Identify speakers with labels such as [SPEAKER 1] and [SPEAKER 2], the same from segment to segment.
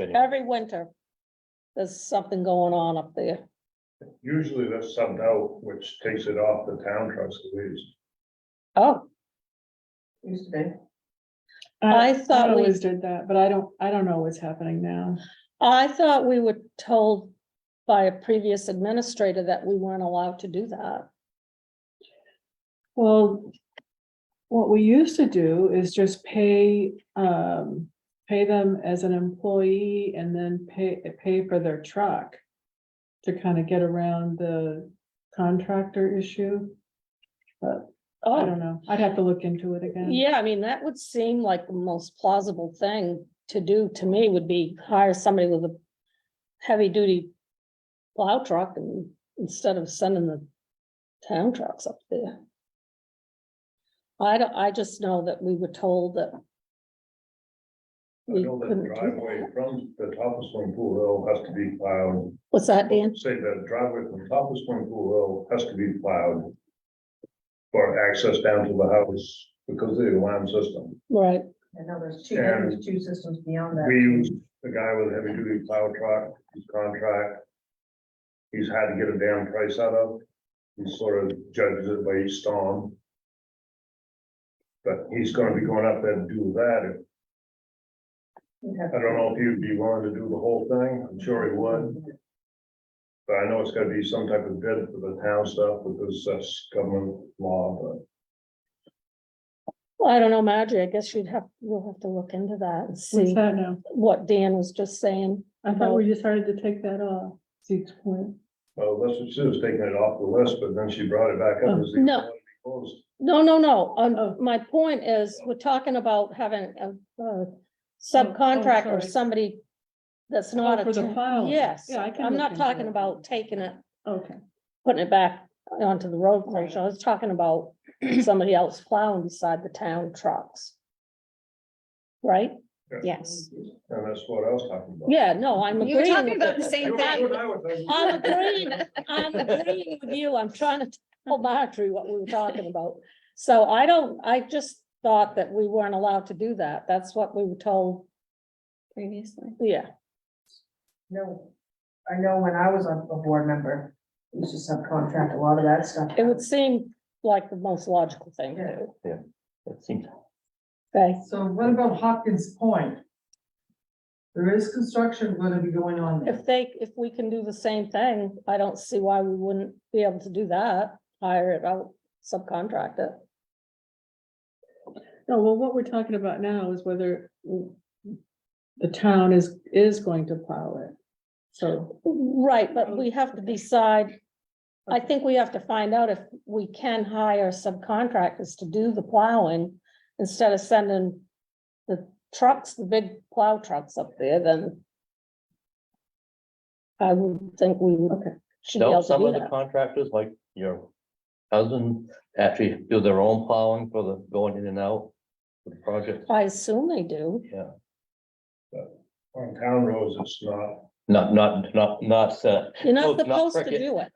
[SPEAKER 1] anyway.
[SPEAKER 2] Every winter, there's something going on up there.
[SPEAKER 3] Usually that's subbed out, which takes it off the town trustees.
[SPEAKER 2] Oh,
[SPEAKER 4] Used to be.
[SPEAKER 2] I thought we-
[SPEAKER 5] Oh, Always did that, but I don't, I don't know what's happening now.
[SPEAKER 2] I thought we were told by a previous administrator that we weren't allowed to do that.
[SPEAKER 5] Well, what we used to do is just pay, um, pay them as an employee and then pay, pay for their truck to kind of get around the contractor issue. I
[SPEAKER 2] Oh,
[SPEAKER 5] don't know. I'd have to look into it again.
[SPEAKER 2] yeah, I mean, that would seem like the most plausible thing to do to me would be hire somebody with a heavy duty plow truck and instead of sending the town trucks up there. I don't, I just know that we were told that
[SPEAKER 3] I
[SPEAKER 2] we
[SPEAKER 3] know that
[SPEAKER 2] couldn't do
[SPEAKER 3] driveway
[SPEAKER 2] that.
[SPEAKER 3] from the top of Swing Pool Hill has to be plowed.
[SPEAKER 2] What's that, Dan?
[SPEAKER 3] Say that driveway from top of Swing Pool Hill has to be plowed for access down to the house because of the alarm system.
[SPEAKER 2] Right,
[SPEAKER 4] I know there's two, there's two systems beyond that.
[SPEAKER 3] We used the guy with a heavy duty plow truck, his contract. He's had to get a damn price out of. He sort of judges it by each storm. But he's gonna be going up there to do that.
[SPEAKER 4] You'd have
[SPEAKER 3] I don't know if he'd be willing to do the whole thing. I'm sure he would.
[SPEAKER 4] to-
[SPEAKER 3] But I know it's gotta be some type of bid for the town stuff because that's government law, but
[SPEAKER 2] Well, I don't know, Marjorie, I guess you'd have, we'll have to look into that and
[SPEAKER 5] What's
[SPEAKER 2] see
[SPEAKER 5] that now?
[SPEAKER 2] what Dan was just saying.
[SPEAKER 5] I thought we decided to take that off. Zeke's point.
[SPEAKER 3] well, that's what she was taking it off the list, but then she brought it back up. as the-
[SPEAKER 2] No.
[SPEAKER 3] Closed.
[SPEAKER 2] No, no, no,
[SPEAKER 5] Oh.
[SPEAKER 2] um, my point is, we're talking about having a, a subcontract or
[SPEAKER 5] sorry.
[SPEAKER 2] somebody that's
[SPEAKER 5] Oh,
[SPEAKER 2] not a.
[SPEAKER 5] for the
[SPEAKER 2] town-
[SPEAKER 5] filing.
[SPEAKER 2] Yes,
[SPEAKER 5] Yeah, I can
[SPEAKER 2] I'm
[SPEAKER 5] look
[SPEAKER 2] not
[SPEAKER 5] into
[SPEAKER 2] talking
[SPEAKER 5] it.
[SPEAKER 2] about taking it,
[SPEAKER 5] Okay.
[SPEAKER 2] putting it back onto the road closure, I was talking about somebody else plowing beside the town trucks. Right?
[SPEAKER 3] Yeah.
[SPEAKER 6] Yes.
[SPEAKER 3] And that's what I was talking about.
[SPEAKER 2] Yeah, no, I'm
[SPEAKER 6] You were
[SPEAKER 2] agreeing.
[SPEAKER 6] talking
[SPEAKER 2] with
[SPEAKER 6] about
[SPEAKER 2] it.
[SPEAKER 6] the same
[SPEAKER 3] You
[SPEAKER 6] thing.
[SPEAKER 3] know what I was thinking?
[SPEAKER 2] I'm agreeing, I'm agreeing with you, I'm trying to tell Marjorie what we were talking about. So I don't, I just thought that we weren't allowed to do that, that's what we were told,
[SPEAKER 6] Previously.
[SPEAKER 2] yeah,
[SPEAKER 4] No, I know when I was a, a board member, we used to subcontract a lot of that stuff.
[SPEAKER 2] it would seem like the most logical thing to do,
[SPEAKER 1] That seems,
[SPEAKER 2] okay?
[SPEAKER 7] So what about Hopkins Point? There is construction gonna be going on there.
[SPEAKER 2] If they, if we can do the same thing, I don't see why we wouldn't be able to do that, hire it out, subcontract it.
[SPEAKER 5] No, well, what we're talking about now is whether w- the town is, is going to plow it. So,
[SPEAKER 2] Right, but we have to decide, I think we have to find out if we can hire subcontractors to do the plowing. Instead of sending the trucks, the big plow trucks up there, then. I would think we would,
[SPEAKER 5] okay.
[SPEAKER 2] should be able
[SPEAKER 1] don't
[SPEAKER 2] to
[SPEAKER 1] some
[SPEAKER 2] do
[SPEAKER 1] of the
[SPEAKER 2] that.
[SPEAKER 1] contractors, like your husband, actually do their own plowing for the going in and out with the project?
[SPEAKER 2] I assume they do,
[SPEAKER 1] Yeah,
[SPEAKER 3] On town roads, it's not,
[SPEAKER 1] not, not, not, not, uh,
[SPEAKER 2] you're
[SPEAKER 1] No, not
[SPEAKER 2] not supposed to
[SPEAKER 1] cricket.
[SPEAKER 2] do it,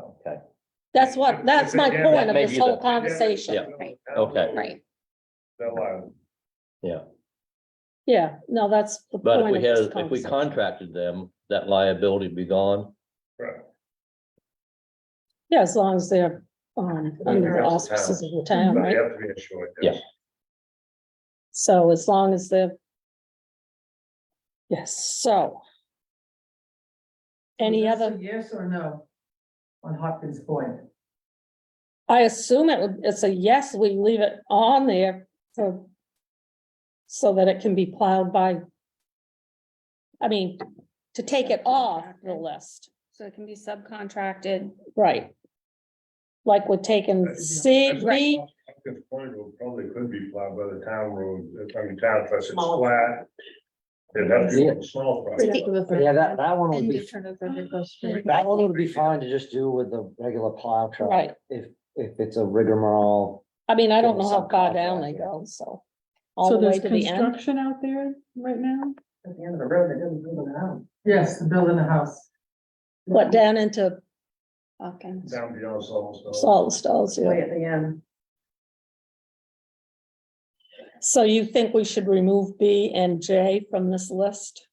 [SPEAKER 1] okay,
[SPEAKER 2] that's what, that's my
[SPEAKER 3] Yeah,
[SPEAKER 2] point
[SPEAKER 1] that
[SPEAKER 2] of
[SPEAKER 1] may
[SPEAKER 2] this
[SPEAKER 1] be
[SPEAKER 2] whole
[SPEAKER 1] the-
[SPEAKER 2] conversation.
[SPEAKER 1] Yeah.
[SPEAKER 6] Right.
[SPEAKER 1] Okay.
[SPEAKER 6] Right.
[SPEAKER 3] They're liable.
[SPEAKER 2] Yeah, no, that's the
[SPEAKER 1] but
[SPEAKER 2] point
[SPEAKER 1] if
[SPEAKER 2] of
[SPEAKER 1] we
[SPEAKER 2] this
[SPEAKER 1] had, if we
[SPEAKER 2] conversation.
[SPEAKER 1] contracted them, that liability would be gone.
[SPEAKER 2] Yeah, as long as they're, um, under the
[SPEAKER 3] Yeah.
[SPEAKER 2] auspices of the town,
[SPEAKER 3] But
[SPEAKER 2] right?
[SPEAKER 3] they have to be insured.
[SPEAKER 1] Yeah.
[SPEAKER 3] yes.
[SPEAKER 2] So as long as the. Yes, so. Any
[SPEAKER 7] Is this a
[SPEAKER 2] other,
[SPEAKER 7] Yes or no? On Hopkins Point?
[SPEAKER 2] I assume it, would- it's a yes, we leave it on there for. So that it can be plowed by. I mean, to take it off the list,
[SPEAKER 6] So it can be subcontracted.
[SPEAKER 2] right? Like we're taking C, B,
[SPEAKER 3] Hopkins Point will probably could be plowed by the town road, I mean, town, plus it's flat. It'd have to be a small project.
[SPEAKER 8] Yeah, that, that one would
[SPEAKER 6] And
[SPEAKER 8] be,
[SPEAKER 6] return of
[SPEAKER 8] that one would be fine to just do with the regular plow truck.
[SPEAKER 2] right?
[SPEAKER 8] If, if it's a rigmarole.
[SPEAKER 2] I mean, I don't know
[SPEAKER 8] Give
[SPEAKER 2] how
[SPEAKER 8] some
[SPEAKER 2] far down they
[SPEAKER 8] contract,
[SPEAKER 2] go, so. All
[SPEAKER 5] So
[SPEAKER 2] the way
[SPEAKER 5] there's
[SPEAKER 2] to the end.
[SPEAKER 5] construction out there right now?
[SPEAKER 4] At the end of the road, it doesn't go down.
[SPEAKER 7] Yes, the building a house.
[SPEAKER 2] What, down into
[SPEAKER 6] Hawkins.
[SPEAKER 3] Down beyond Salisbury.
[SPEAKER 2] salt stalls, yeah.
[SPEAKER 4] Way at the end.
[SPEAKER 2] So you think we should remove B and J from this list?